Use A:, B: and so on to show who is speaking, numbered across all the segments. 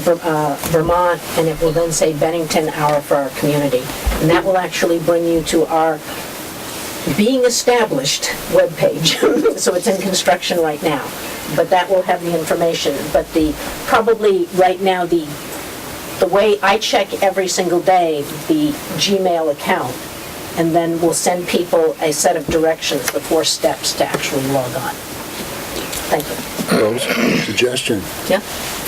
A: Ver- uh, Vermont, and it will then say Bennington Hour for our community. And that will actually bring you to our being established webpage. So it's in construction right now, but that will have the information. But the, probably right now, the, the way I check every single day, the Gmail account, and then we'll send people a set of directions, the four steps to actually log on. Thank you.
B: Rose, suggestion,
A: Yeah?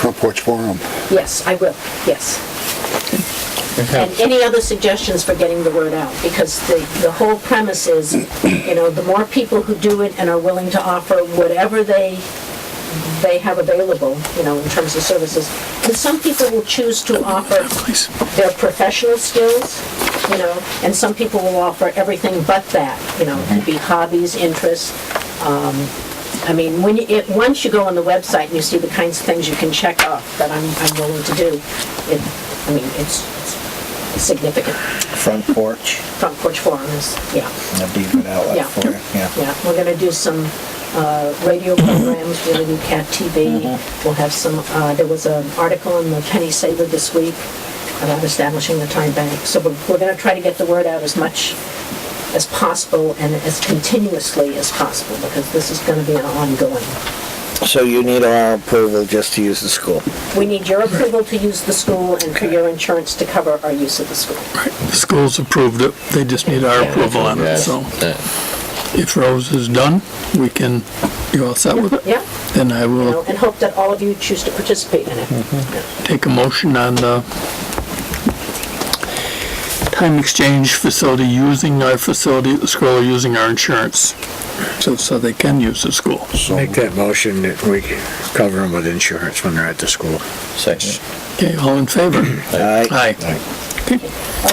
B: front porch forum.
A: Yes, I will, yes. And any other suggestions for getting the word out? Because the, the whole premise is, you know, the more people who do it and are willing to offer whatever they, they have available, you know, in terms of services, and some people will choose to offer their professional skills, you know, and some people will offer everything but that, you know, it'd be hobbies, interests. um, I mean, when, you- it, once you go on the website and you see the kinds of things you can check off that I'm, I'm willing to do, it, I mean, it's it's significant.
C: front porch.
A: Front porch forum is, yeah,
C: That'd be a good
A: Yeah.
C: outlet for it, yeah.
A: yeah. We're gonna do some uh, radio programs, we're gonna do CAT TV. We'll have some, uh, there was an article in the Penny Saver this week about establishing the time bank. So we're we're gonna try to get the word out as much as possible and as continuously as possible, because this is gonna be an ongoing.
C: So you need our approval just to use the school.
A: We need your approval to use the school and for your insurance to cover our use of the school.
D: The school's approved it, they just need our approval on it, so if Rose is done, we can, you all set with it?
A: Yeah,
D: Then I
A: you know,
D: will
A: and hope that all of you choose to participate in it. Yeah.
D: take a motion on the time exchange facility using our facility, the school using our insurance, so, so they can use the school.
B: So,
E: Make that motion that we cover them with insurance when they're at the school.
C: Second.
D: Okay, all in favor?
C: Aye.
D: Aye. Okay,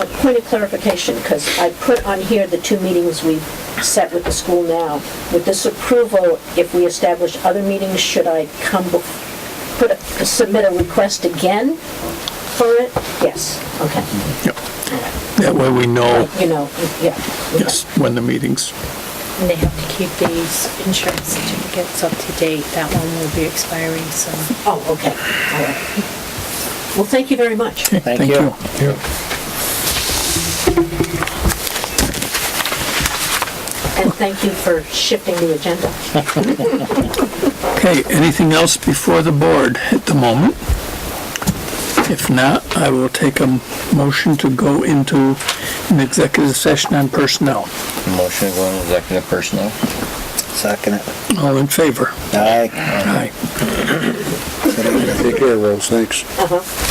A: A point of clarification, because I put on here the two meetings we've set with the school now. With this approval, if we establish other meetings, should I come, bef- put, a- submit a request again for it? Yes, okay,
D: yep. That way we know,
A: you know, yeah.
D: Oh. yes, when the meetings,
F: And they have to keep these insurance certificates up to date. That one will be expiring soon.
A: Oh, okay, all right. Well, thank you very much.
D: Okay,
C: Thank
D: thank
C: you.
D: you.
A: And thank you for shifting the agenda.
D: Okay, anything else before the board at the moment? If not, I will take a motion to go into an executive session on personnel.
G: Motion to go into executive personnel.
C: Second it.
D: All in favor?
C: Aye.
D: Aye.
B: take care, Rose, thanks.
A: Uh-huh.